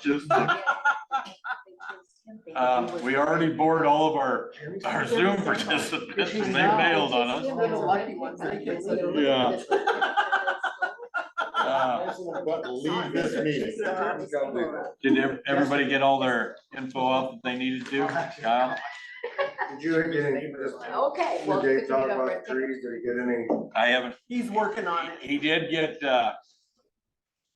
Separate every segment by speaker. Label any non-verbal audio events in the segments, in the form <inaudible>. Speaker 1: Just, um, we already bored all of our, our Zoom participants and they bailed on us.
Speaker 2: They're the lucky ones that get such a-
Speaker 1: Yeah. Uh,
Speaker 3: But leave this meeting.
Speaker 1: Did ev- everybody get all their info out that they needed to? Kyle?
Speaker 3: Did you get any, this,
Speaker 4: <laughs> Okay. well,
Speaker 3: did Dave
Speaker 4: good
Speaker 3: talk
Speaker 4: to go.
Speaker 3: about the trees, did he get any?
Speaker 1: I haven't,
Speaker 2: He's working on it.
Speaker 1: he did get, uh,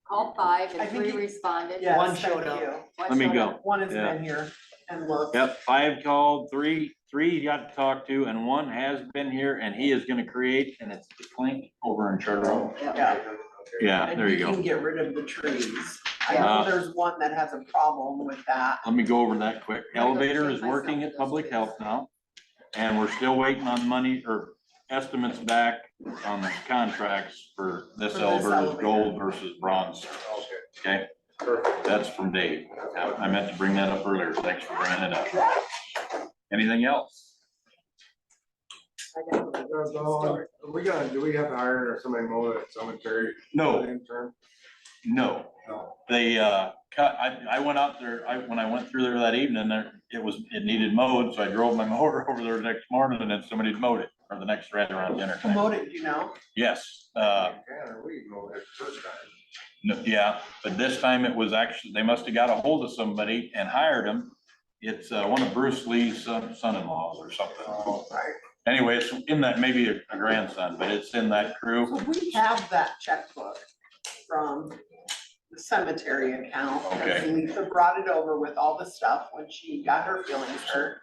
Speaker 4: All five
Speaker 2: I think
Speaker 4: and three
Speaker 2: he-
Speaker 4: responded.
Speaker 2: Yes,
Speaker 5: One
Speaker 2: thank
Speaker 5: showed up.
Speaker 2: you.
Speaker 4: One
Speaker 1: Let me
Speaker 4: showed
Speaker 1: go.
Speaker 4: up.
Speaker 2: One has
Speaker 1: Yeah.
Speaker 2: been here and looked.
Speaker 1: yep, five called, three, three he got to talk to, and one has been here, and he is gonna create, and it's the clink over in Charter Oak.
Speaker 2: Yeah.
Speaker 1: Yeah,
Speaker 2: And
Speaker 1: there you
Speaker 2: he Can
Speaker 1: go.
Speaker 2: get rid of the trees. I
Speaker 1: Yeah.
Speaker 2: know there's one that has a problem with that.
Speaker 1: Let me go over that quick. Elevator is working at Public Health now, and we're still waiting on money or estimates back on the contracts for this
Speaker 2: For this
Speaker 1: elevator,
Speaker 2: elevator.
Speaker 1: gold versus bronze, okay? That's from Dave. I meant to bring that up earlier. Thanks for bringing it up. Anything else?
Speaker 2: I know.
Speaker 3: We gotta, do we have to hire somebody more at cemetery?
Speaker 1: No,
Speaker 3: Intern?
Speaker 1: no.
Speaker 3: No.
Speaker 1: They, uh, cut, I, I went out there, I, when I went through there that evening, there, it was, it needed mowed, so I drove my <laughs> mower over there the next morning and then somebody had mowed it, or the next right around dinner time.
Speaker 2: Promoted, you know?
Speaker 1: Yes, uh,
Speaker 3: Yeah, we can go ahead first time.
Speaker 1: No, Yeah, but this time it was actually, they must have got a hold of somebody and hired him. It's uh, one of Bruce Lee's son- son-in-laws or something.
Speaker 3: Oh,
Speaker 1: Anyway, it's in that, maybe a a grandson, but it's in that crew.
Speaker 2: So we have that checkbook from the cemetery account. 'cause
Speaker 1: Okay.
Speaker 2: Lisa brought it over with all the stuff when she got her feelings hurt.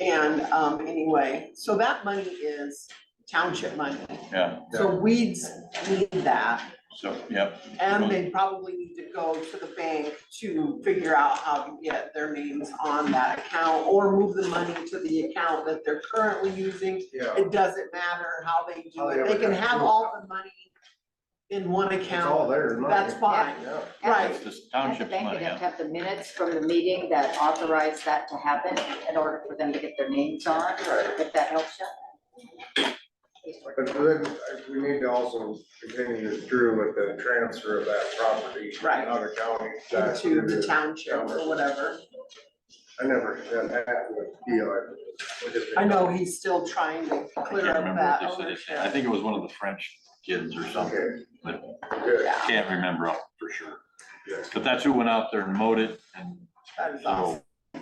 Speaker 2: And, um, anyway, so that money is township money.
Speaker 1: Yeah,
Speaker 2: So weeds need that.
Speaker 1: so, yep,
Speaker 2: And they probably need to go to the bank to figure out how to get their names on that account or move the money to the account that they're currently using.
Speaker 3: Yeah,
Speaker 2: It doesn't matter how they do
Speaker 3: How they
Speaker 2: it. They can
Speaker 3: ever got
Speaker 2: have
Speaker 3: through.
Speaker 2: all the money in one
Speaker 3: it's
Speaker 2: account.
Speaker 3: all there. money.
Speaker 2: That's fine.
Speaker 3: Yeah.
Speaker 2: Right.
Speaker 1: it's just
Speaker 4: At the
Speaker 1: township
Speaker 4: bank,
Speaker 1: money,
Speaker 4: they have to
Speaker 1: yeah.
Speaker 4: have the minutes from the meeting that authorized that to happen in order for them to get their names on, if that helps you. He's working.
Speaker 3: But then uh, we need to also continue through with the transfer of that property.
Speaker 2: Right.
Speaker 3: Out of county. back
Speaker 2: Into
Speaker 3: to
Speaker 2: the township or whatever.
Speaker 3: I never, that happened, deal.
Speaker 2: I know he's still trying to
Speaker 1: I can't
Speaker 2: clear up
Speaker 1: remember what
Speaker 2: that
Speaker 1: they said. It's- I
Speaker 2: ownership.
Speaker 1: think it was one of the French kids or something,
Speaker 3: Okay,
Speaker 1: but
Speaker 3: good.
Speaker 2: Yeah,
Speaker 1: can't remember off for sure.
Speaker 3: Yeah.
Speaker 1: But that's who went out there and mowed it and
Speaker 2: that is awesome.
Speaker 1: so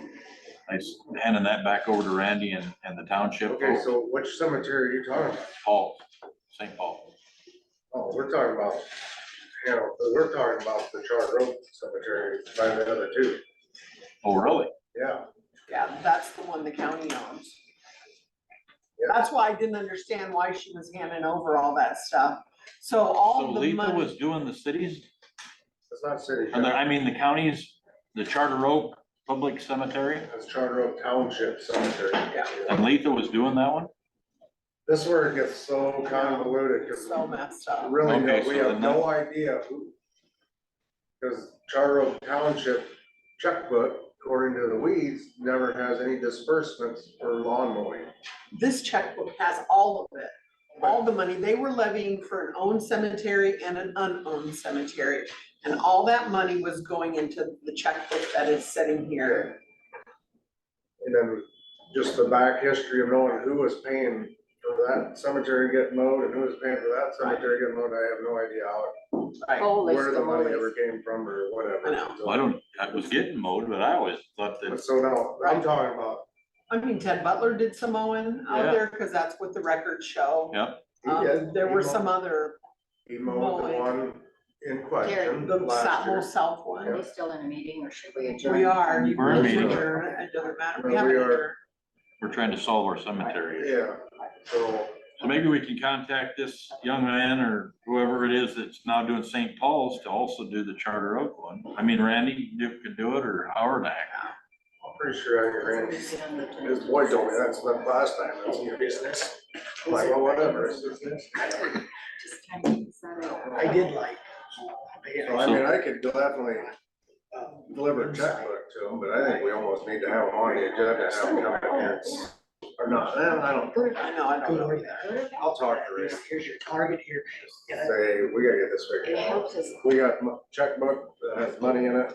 Speaker 1: I s- handing that back over to Randy and, and the township,
Speaker 3: Okay, so which cemetery are you talking about?
Speaker 1: Paul, St. Paul.
Speaker 3: Oh, we're talking about, you know, we're talking about the Charter Oak Cemetery by the other two,
Speaker 1: Oh, really?
Speaker 3: yeah.
Speaker 2: Yeah, that's the one the county owns.
Speaker 3: Yeah.
Speaker 2: That's why I didn't understand why she was handing over all that stuff. So
Speaker 1: So
Speaker 2: all the
Speaker 1: Letha was
Speaker 2: money,
Speaker 1: doing the cities,
Speaker 3: It's not city,
Speaker 1: and there- I mean, the counties, the Charter Oak Public Cemetery,
Speaker 3: it's Charter Oak Township Cemetery.
Speaker 1: and Letha was doing that one?
Speaker 3: This is where it gets so convoluted, because
Speaker 2: so messed up.
Speaker 3: really, no-
Speaker 1: Okay,
Speaker 3: we
Speaker 1: so
Speaker 3: have
Speaker 1: the
Speaker 3: no idea who. Because Charter Oak Township checkbook, according to the weeds, never has any disbursements for lawn mowing.
Speaker 2: This checkbook has all of it, all the money. They were levying for an owned cemetery and an unowned cemetery. And all that money was going into the checkbook that is sitting here.
Speaker 3: And then just the back history of knowing who was paying for that cemetery getting mowed and who was paying for that cemetery getting mowed, I have no idea how,
Speaker 2: Right,
Speaker 4: Goal is
Speaker 3: where the
Speaker 4: goal
Speaker 3: money
Speaker 4: is-
Speaker 3: ever came from or whatever.
Speaker 2: I know.
Speaker 1: Well, I don't, I was getting mowed, but I always thought
Speaker 3: But
Speaker 1: that,
Speaker 3: So now, I'm talking about,
Speaker 2: I mean, Ted Butler did some mowing
Speaker 1: Yeah.
Speaker 2: out there because that's what the records show.
Speaker 1: Yeah.
Speaker 3: he did,
Speaker 2: Um, there
Speaker 3: he
Speaker 2: were
Speaker 3: mowed-
Speaker 2: some other
Speaker 3: He mowed the
Speaker 2: mowing.
Speaker 3: one in question
Speaker 2: The
Speaker 3: last
Speaker 2: south,
Speaker 3: year.
Speaker 2: more south
Speaker 4: Are
Speaker 2: one.
Speaker 4: we still in a meeting or should we adjourn?
Speaker 2: We are. you
Speaker 1: We're
Speaker 2: can
Speaker 1: meeting.
Speaker 2: adjourn, It doesn't matter. We
Speaker 3: We
Speaker 2: have
Speaker 3: are.
Speaker 2: another.
Speaker 1: we're trying to solve our cemetery.
Speaker 3: Yeah, so,
Speaker 1: So maybe we can contact this young man or whoever it is that's now doing St. Paul's to also do the Charter Oak one. I mean, Randy you could do it, or Howard, I,
Speaker 3: I'm pretty sure I ran, his boy told me that's the last time, that's your business. I'm like, well, whatever, it's business.
Speaker 4: Just kind of keep that up.
Speaker 6: I did like.
Speaker 3: So I mean, I could definitely
Speaker 6: um,
Speaker 3: deliver a checkbook to them, but I think we almost need to have them on the agenda, have them come in here. Or not, I don't- I don't
Speaker 4: Go to
Speaker 2: I know, I don't know
Speaker 6: Good.
Speaker 2: either.
Speaker 3: I'll talk to Rick,
Speaker 6: Here's here's your target here.
Speaker 3: say, we gotta get this
Speaker 4: It
Speaker 3: figured out.
Speaker 4: helps us
Speaker 3: We got mo- checkbook that has money in it,